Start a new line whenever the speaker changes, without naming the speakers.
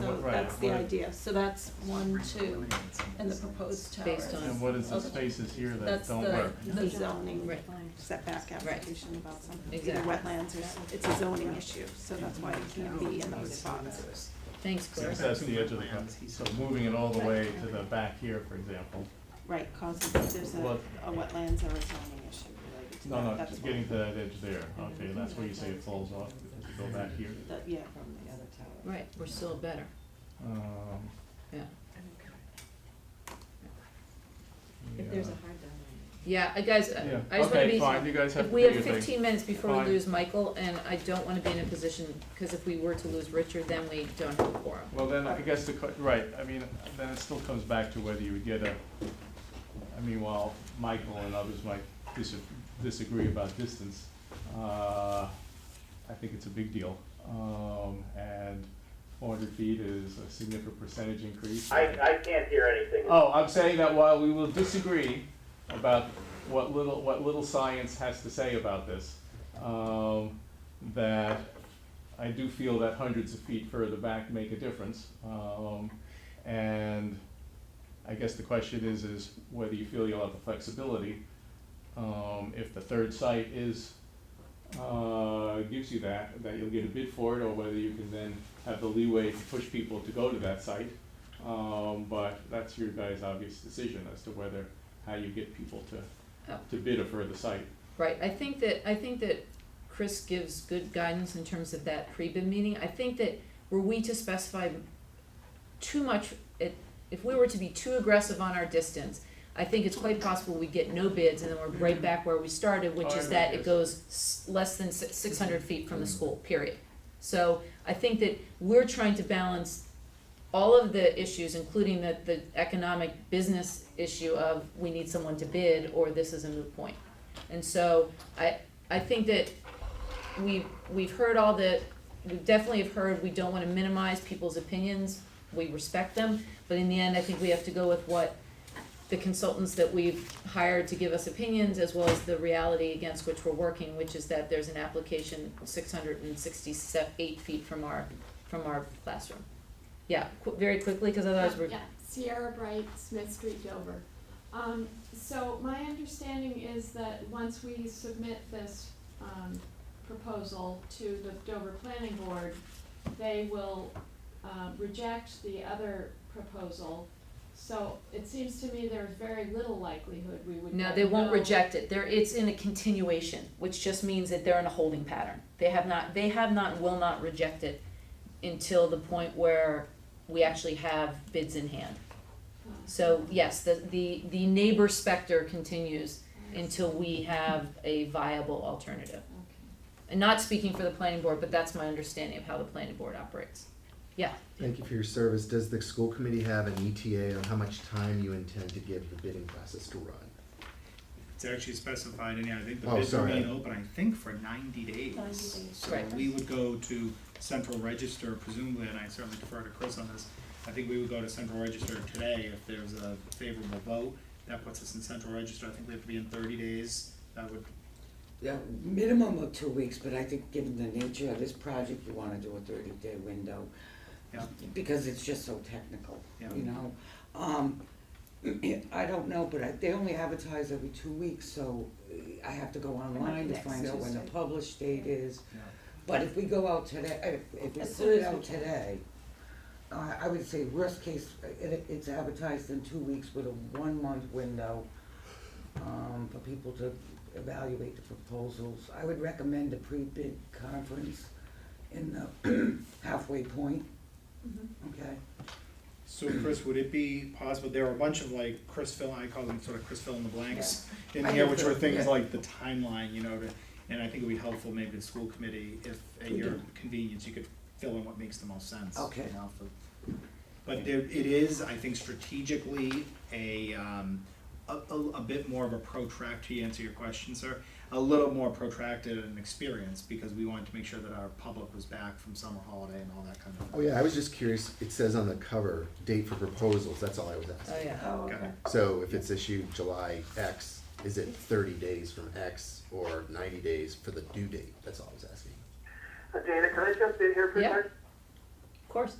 Right,
that's the
what-
idea, so that's one, two, and the proposed towers.
Based on-
And what is the
Okay.
spaces here that
That's
don't
the,
work?
the zoning
Right.
setback application about some, either
Exactly.
wetlands or, s- it's a zoning issue, so that's why it can't be in those spots.
Thanks, Chris.
Since that's the edge of the, pro- so moving it all the way to the back here, for example.
Right, causes, there's a,
What-
a wetlands or a zoning issue related to
No,
that,
no,
that's
just
why,
getting to that edge there, okay, and that's where you say it falls off, if you go back here.
that, yeah, from the other tower.
Right, we're still better,
Um,
yeah.
yeah.
hard down
Yeah, I guys,
Yeah,
I I just wanna
okay,
be,
fine, you guys have
if
to
we
do your
have
thing.
fifteen minutes before
Fine.
we lose Michael, and I don't wanna be in a position, cause if we were to lose Richard, then we don't have a quorum.
Well, then, I guess the, que- right, I mean, then it still comes back to whether you would get a, I mean, while Michael and others might dis- disagree about distance, uh, I think it's a big deal. Um, and four hundred feet is a significant percentage increase.
I, I can't hear anything.
Oh, I'm saying that while we will disagree about what little, what little science has to say about this, um, that I do feel that hundreds of feet further back make a difference. Um, and I guess the question is, is whether you feel you'll have the flexibility, um, if the third site is, uh, gives you that, that you'll get a bid for it, or whether you can then have the leeway to push people to go to that site. Um, but that's your guys' obvious decision as to whether, how you get people to,
Oh.
to bid a further site.
Right, I think that, I think that Chris gives good guidance in terms of that pre-bid meeting, I think that were we to specify too much, it, if we were to be too aggressive on our distance, I think it's quite possible we get no bids, and then we're right back where we started, which is
Alright,
that
Oh, yes.
it goes s- less than six hundred feet from the school, period. So I think that we're trying to balance all of the issues, including the, the economic business issue of we need someone to bid, or this is a moot point. And so I, I think that we, we've heard all the, we definitely have heard, we don't wanna minimize people's opinions, we respect them, but in the end, I think we have to go with what the consultants that we've hired to give us opinions, as well as the reality against which we're working, which is that there's an application six hundred and sixty-eight feet from our, from our classroom. Yeah, qu- very quickly, cause otherwise we're,
Yeah, Sierra Bright, Smith Street, Dover. Um, so my understanding is that once we submit this, um, proposal to the Dover Planning Board, they will, um, reject the other proposal. So it seems to me there's very little likelihood we would
no,
get
they won't
no-
reject it, there, it's in a continuation, which just means that they're in a holding pattern. They have not, they have not, and will not reject it until the point where we actually have bids in hand.
Uh,
So yes, the, the, the neighbor specter continues until we have a viable alternative.
Okay.
And not speaking for the planning board, but that's my understanding of how the planning board operates.
Thank you for your service. Does the school committee have an ETA on how much time you intend to give the bidding process to run?
It's actually specified in here, I think the
Oh,
bids
sorry.
remain open, I think for ninety days.
90 days.
So
Right.
we would go to central register presumably, and I certainly defer to Chris on this, I think we would go to central register today if there's a favorable vote, that puts us in central register, I think we have to be in thirty days, that would,
Yeah, minimum of two weeks, but I think given the nature of this project, you wanna do a thirty day window.
Yeah.
Because it's just so technical,
Yeah.
you know? Um, I don't know, but I, they only advertise every two weeks, so uh, I have to go online to
next
find out when the
Tuesday.
published date is.
Yeah.
But if we go out today, if, if we
As
put
soon
it
as we
out
can.
today, I, I would say worst case, it, it's advertised in two weeks with a one month window, um, for people to evaluate the proposals. I would recommend a pre-bid conference in the halfway point,
Mm-hmm.
okay?
so Chris, would it be possible, there are a bunch of like Chris fill, I call them sort of Chris fill in the blanks in
I
here,
know
which were
that,
things
yeah.
like the timeline, you know, to, and I think it would be helpful maybe to the school committee if at your convenience, you could fill in what makes the most sense. you
Okay.
know, for- But there, it is, I think strategically, a, um, a, a, a bit more of a protract, to answer your question, sir, a little more protracted an experience, because we wanted to make sure that our public was back from summer holiday and all that kind of.
Oh, yeah, I was just curious. It says on the cover, date for proposals. That's all I was
Oh,
asking.
yeah.
Oh,
Got
okay.
it.
So if it's issued July X, is it thirty days from X or ninety days for the due date? That's all I was asking.
Uh, Dana, can I jump in here for a
Yeah.
second?
Of course.